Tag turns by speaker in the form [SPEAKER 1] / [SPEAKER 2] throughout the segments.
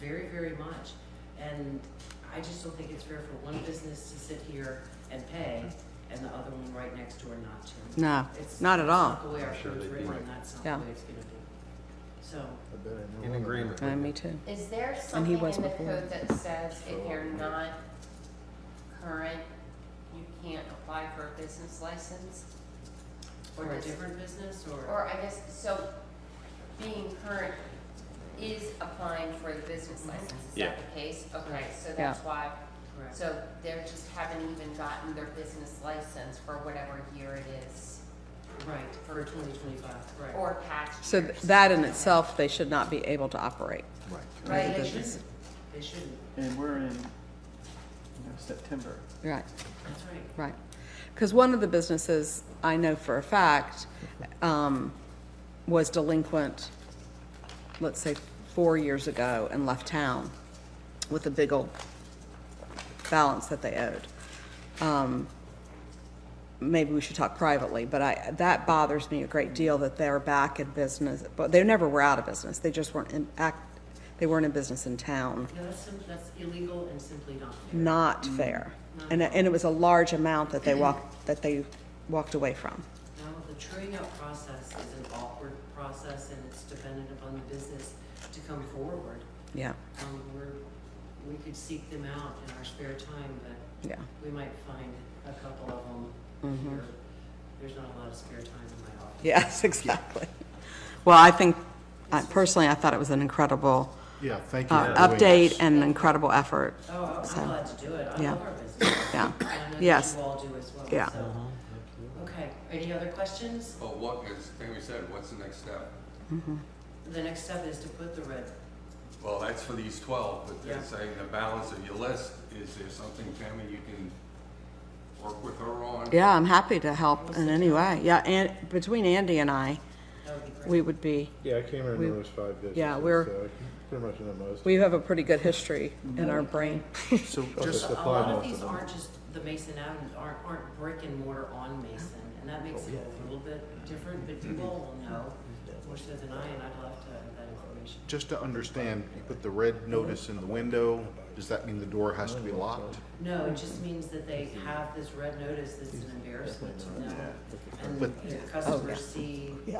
[SPEAKER 1] very, very much. And I just don't think it's fair for one business to sit here and pay and the other one right next door not to.
[SPEAKER 2] No,
[SPEAKER 1] It's
[SPEAKER 2] not at all.
[SPEAKER 1] Not the way our
[SPEAKER 3] Sure
[SPEAKER 1] food's
[SPEAKER 3] they do.
[SPEAKER 1] written,
[SPEAKER 3] Right.
[SPEAKER 1] and that's not
[SPEAKER 2] Yeah.
[SPEAKER 1] the way it's gonna be. So,
[SPEAKER 4] I bet I know
[SPEAKER 3] In
[SPEAKER 4] one of
[SPEAKER 3] agreement.
[SPEAKER 4] them.
[SPEAKER 2] Uh, me too.
[SPEAKER 5] Is there
[SPEAKER 2] And he
[SPEAKER 5] something in the
[SPEAKER 2] was before.
[SPEAKER 5] code that says if you're not current, you can't apply for a business license?
[SPEAKER 1] or a
[SPEAKER 5] does-
[SPEAKER 1] different business, or,
[SPEAKER 5] Or I guess, so being current is applying for the business license, is
[SPEAKER 3] Yeah.
[SPEAKER 5] that the case? Okay,
[SPEAKER 1] Right.
[SPEAKER 5] so that's
[SPEAKER 2] Yeah.
[SPEAKER 5] why,
[SPEAKER 1] correct.
[SPEAKER 5] so they just haven't even gotten their business license for whatever year it is,
[SPEAKER 1] right, for twenty twenty-five, right.
[SPEAKER 5] or past
[SPEAKER 2] So th-
[SPEAKER 5] years.
[SPEAKER 2] that in itself, they should not be able to operate.
[SPEAKER 4] Right.
[SPEAKER 2] Right.
[SPEAKER 1] They
[SPEAKER 2] business.
[SPEAKER 1] shouldn't, they shouldn't,
[SPEAKER 6] And we're in, you know, September.
[SPEAKER 2] Right,
[SPEAKER 1] that's right.
[SPEAKER 2] right. Because one of the businesses, I know for a fact, um, was delinquent, let's say, four years ago and left town with a big old balance that they owed. Um, maybe we should talk privately, but I, that bothers me a great deal that they're back in business, but they never were out of business. They just weren't in act, they weren't in business in town.
[SPEAKER 1] No, that's simply, that's illegal and simply not fair.
[SPEAKER 2] not fair. And, and it was a large amount that they walked, that they walked away from.
[SPEAKER 1] No, the truing up process is an awkward process and it's dependent upon the business to come forward.
[SPEAKER 2] Yeah,
[SPEAKER 1] Um, we're, we could seek them out in our spare time, but
[SPEAKER 2] yeah.
[SPEAKER 1] we might find a couple of them
[SPEAKER 2] Mm-hmm.
[SPEAKER 1] here. There's not a lot of spare time in my office.
[SPEAKER 2] Yes, exactly. Well, I think, I- personally, I thought it was an incredible
[SPEAKER 4] Yeah, thank you.
[SPEAKER 2] uh,
[SPEAKER 4] for doing
[SPEAKER 2] update
[SPEAKER 4] this.
[SPEAKER 2] and an incredible effort.
[SPEAKER 1] Oh, I-
[SPEAKER 2] So,
[SPEAKER 1] I'm glad to do it. I
[SPEAKER 2] yeah.
[SPEAKER 1] love our business.
[SPEAKER 2] Yeah,
[SPEAKER 1] And I know that
[SPEAKER 2] Yes.
[SPEAKER 1] you all do as well,
[SPEAKER 2] Yeah.
[SPEAKER 1] so. Okay, any other questions?
[SPEAKER 7] Well, what is, like we said, what's the next step?
[SPEAKER 1] The next step is to put the red,
[SPEAKER 7] Well, that's for these twelve, but
[SPEAKER 1] Yeah.
[SPEAKER 7] they're saying the balance of your list, is there something, Tammy, you can work with her on?
[SPEAKER 2] yeah, I'm happy to help in any way. Yeah, and between Andy and I,
[SPEAKER 1] that would be great.
[SPEAKER 2] we would be,
[SPEAKER 4] Yeah, I came here and
[SPEAKER 2] We-
[SPEAKER 4] there was five businesses.
[SPEAKER 2] yeah, we're-
[SPEAKER 4] so Pretty much in the most.
[SPEAKER 2] we have a pretty good history in our brain.
[SPEAKER 3] So
[SPEAKER 4] Okay,
[SPEAKER 3] just,
[SPEAKER 1] So
[SPEAKER 4] so
[SPEAKER 1] A
[SPEAKER 4] five
[SPEAKER 1] lot of
[SPEAKER 4] most
[SPEAKER 1] these
[SPEAKER 4] them.
[SPEAKER 1] aren't just, the Mason Adams aren't, aren't brick and mortar on Mason, and that makes it a little bit different, but you all will know, more so than I, and I'd love to have that information.
[SPEAKER 8] Just to understand, you put the red notice in the window, does that mean the door has to be locked?
[SPEAKER 1] No, it just means that they have this red notice that's an embarrassment to them, and
[SPEAKER 8] But-
[SPEAKER 1] your customers see it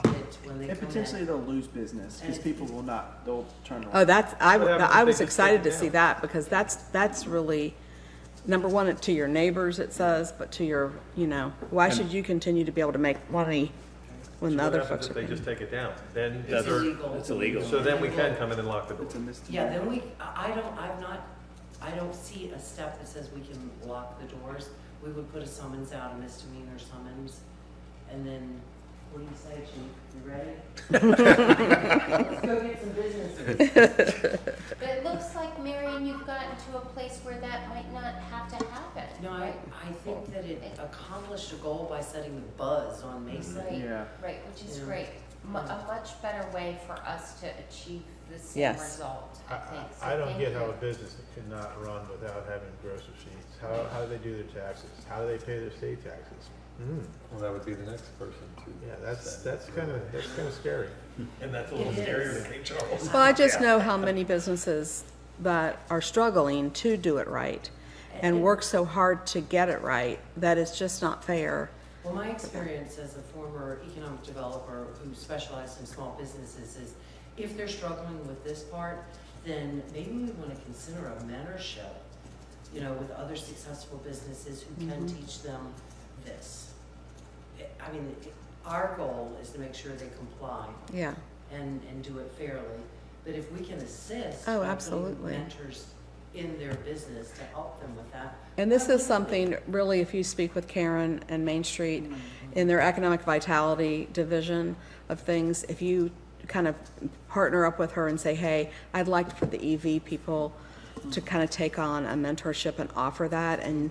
[SPEAKER 1] when they
[SPEAKER 6] Oh, And
[SPEAKER 1] come
[SPEAKER 6] potentially
[SPEAKER 1] in.
[SPEAKER 6] they'll lose business because people will not, they'll turn
[SPEAKER 2] Oh,
[SPEAKER 6] around.
[SPEAKER 2] that's, I,
[SPEAKER 3] What happens if
[SPEAKER 2] I
[SPEAKER 3] they
[SPEAKER 2] was
[SPEAKER 3] just take
[SPEAKER 2] excited
[SPEAKER 3] it
[SPEAKER 2] to see
[SPEAKER 3] down?
[SPEAKER 2] that, because that's, that's really, number one, to your neighbors, it says, but to your, you know, why should you continue to be able to make money when the
[SPEAKER 3] what
[SPEAKER 2] other
[SPEAKER 3] happens
[SPEAKER 2] folks
[SPEAKER 3] if
[SPEAKER 2] are
[SPEAKER 3] they
[SPEAKER 2] paying?
[SPEAKER 3] just take it down? Then,
[SPEAKER 1] It's
[SPEAKER 3] so
[SPEAKER 1] illegal.
[SPEAKER 9] It's illegal.
[SPEAKER 3] then we can come in and lock the door.
[SPEAKER 6] It's a
[SPEAKER 1] Yeah,
[SPEAKER 6] misdemeanor.
[SPEAKER 1] then we, I I don't, I've not, I don't see a step that says we can lock the doors. We would put a summons out, a misdemeanor summons, and then, what do you say, Chief, you ready? Let's go get some business.
[SPEAKER 5] But it looks like, Marion, you've gotten to a place where that might not have to happen,
[SPEAKER 1] No, I,
[SPEAKER 5] right?
[SPEAKER 1] I think that it accomplished a goal by setting the buzz on Mason.
[SPEAKER 5] Right.
[SPEAKER 6] Yeah.
[SPEAKER 5] Right, which is
[SPEAKER 1] Yeah.
[SPEAKER 5] great. Mu- A much better way for us to achieve the same
[SPEAKER 2] Yes.
[SPEAKER 5] result,
[SPEAKER 4] I-
[SPEAKER 5] I
[SPEAKER 4] I
[SPEAKER 5] think. So
[SPEAKER 4] I don't
[SPEAKER 5] thank
[SPEAKER 4] get how a
[SPEAKER 5] you.
[SPEAKER 4] business could not run without having gross receipts. How, how do they do their taxes? How do they pay their state taxes?
[SPEAKER 3] Well, that would be the next person to.
[SPEAKER 4] Yeah, that's, that's kind of, that's kind of scary.
[SPEAKER 3] And that's a
[SPEAKER 1] little It is. scarier than
[SPEAKER 3] King Charles.
[SPEAKER 2] Well, I just know how many businesses that are struggling to do it right and work so hard to get it right, that it's just not fair.
[SPEAKER 1] Well, my experience as a former economic developer who specialized in small businesses is if they're struggling with this part, then maybe we want to consider a mentorship, you know, with other successful businesses who can
[SPEAKER 2] Mm-hmm.
[SPEAKER 1] teach them this. I mean, our goal is to make sure they comply
[SPEAKER 2] Yeah,
[SPEAKER 1] and, and do it fairly. But if we can assist.
[SPEAKER 2] Oh,
[SPEAKER 1] by putting
[SPEAKER 2] absolutely.
[SPEAKER 1] Mentors in their business to help them with that.
[SPEAKER 2] and this is
[SPEAKER 1] I think we-
[SPEAKER 2] something, really, if you speak with Karen and Main Street, in their economic vitality division of things, if you kind of partner up with her and say, hey, I'd like for the EV people to kind of take on a mentorship and offer that, and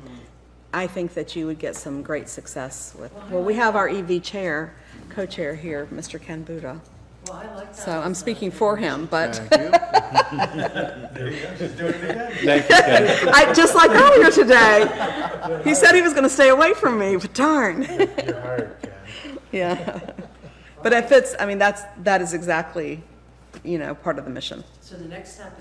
[SPEAKER 2] I think that you would get some great success with, well, we have our EV chair, co-chair here, Mr. Ken Buddha,
[SPEAKER 1] Well, I like that.
[SPEAKER 2] so I'm
[SPEAKER 1] as a-
[SPEAKER 2] speaking for him, but
[SPEAKER 8] Thank you.
[SPEAKER 2] I, just like earlier today, he said he was gonna stay away from me, but darn.
[SPEAKER 4] You're hired, Ken.
[SPEAKER 2] Yeah. But if it's, I mean, that's, that is exactly, you know, part of the mission.
[SPEAKER 1] So the next step